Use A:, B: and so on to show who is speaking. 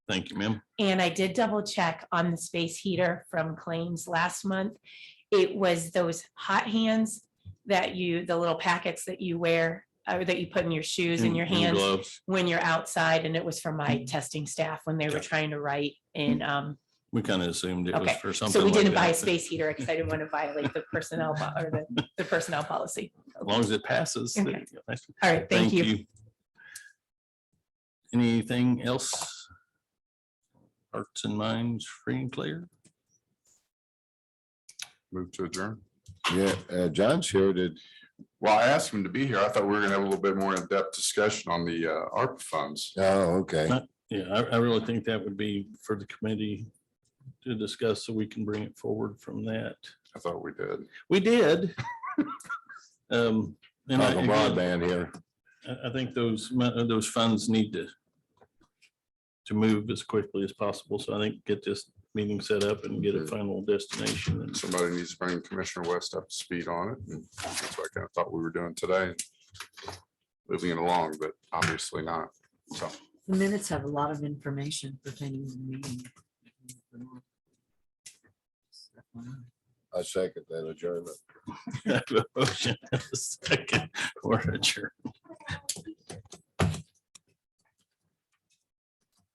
A: Thank you, ma'am.
B: And I did double check on the space heater from claims last month. It was those hot hands that you, the little packets that you wear, or that you put in Mm-hmm. your shoes and your hands
A: Gloves.
B: when you're outside, and it was from my testing staff when they were
A: Yeah.
B: trying to write. And um,
A: We kind of assumed it was
B: Okay,
A: for something.
B: so we
A: like
B: didn't buy a
A: that.
B: space heater because I didn't want to violate the personnel po- or the, the personnel policy.
A: As long as it passes. there
B: Okay.
A: you go. Nice.
B: All right, thank you.
A: Anything else? Hearts and minds free and clear?
C: Move to adjourn.
D: Yeah, uh, John's here. Did,
C: Well, I asked him to be here. I thought we were gonna have a little bit more in-depth discussion on the uh, ARPA funds.
D: oh, okay.
A: Yeah, I, I really think that would be for the committee to discuss so we can bring it forward from that.
C: I thought we did.
A: We did. Um, and I,
D: Talking
A: again,
D: broadband here.
A: I, I think those, mon- uh, those funds need to to move as quickly as possible. So I think get this meeting set up and get a final destination and
C: Somebody needs to bring Commissioner West up to speed on it. and That's what I kind of thought we were doing today. Moving it along, but obviously not. So
E: The minutes have a lot of information pertaining to the meeting.
D: I second that adjournment.
A: I have a Motion and a second, or adjourned.